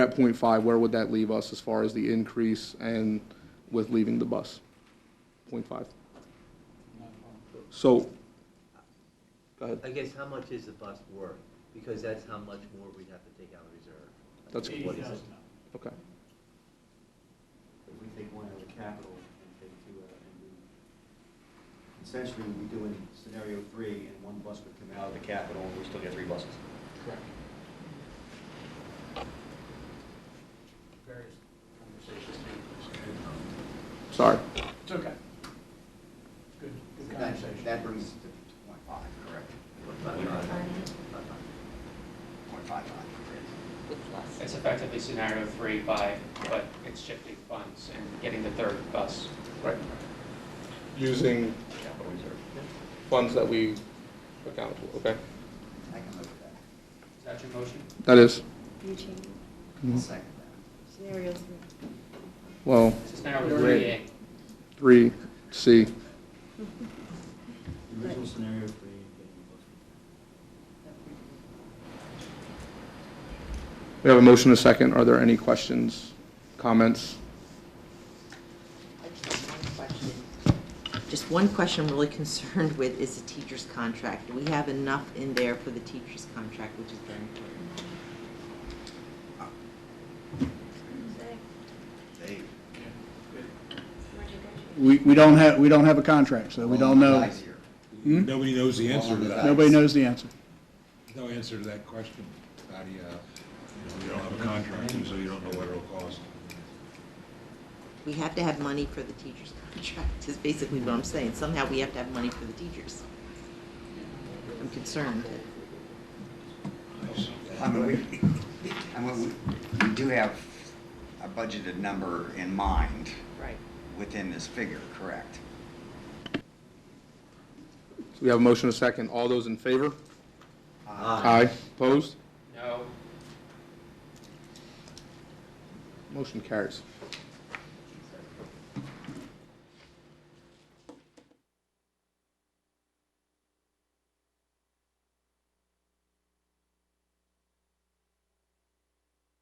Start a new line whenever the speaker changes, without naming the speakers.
at point five, where would that leave us as far as the increase and with leaving the bus? Point five. So, go ahead.
I guess how much is the bus worth? Because that's how much more we'd have to take out of reserve.
That's-
What is it?
Okay.
If we take one out of capital and take two out, and we, essentially, we'd be doing scenario three, and one bus would come out of the capital, and we still get three buses.
Correct. Various conversations.
Sorry.
It's okay. Good, good conversation.
That brings us to point five, correct? Point five five.
It's effectively scenario three by, but it's shifting funds and getting the third bus.
Right. Using funds that we accountable, okay?
I can look at
Is that your motion?
That is,
You change
that. Second that.
scenarios. and-
well,
Scenario three A.
three, C.
The Original scenario three, and getting the bus.
We have a motion and a second. Are there any questions, comments?
I just have one question. Just one question I'm really concerned with is the teacher's contract. Do we have enough in there for the teacher's contract, which is very important?
Dave.
We, we don't have, we don't have a contract, so we don't know.
Guys here.
Hmm?
Nobody knows the answer to that.
Nobody knows the answer.
There's No answer to that question. How do you, you know, you don't have a contract, so you don't know what it'll cost.
We have to have money for the teacher's contract, is basically what I'm saying. Somehow we have to have money for the teachers. I'm concerned.
I mean, we, I mean, we- we do have a budgeted number in mind
Right.
within this figure, correct?
We have a motion and a second. All those in favor?
Uh,
Aye.
Opposed?
No,
Motion carries.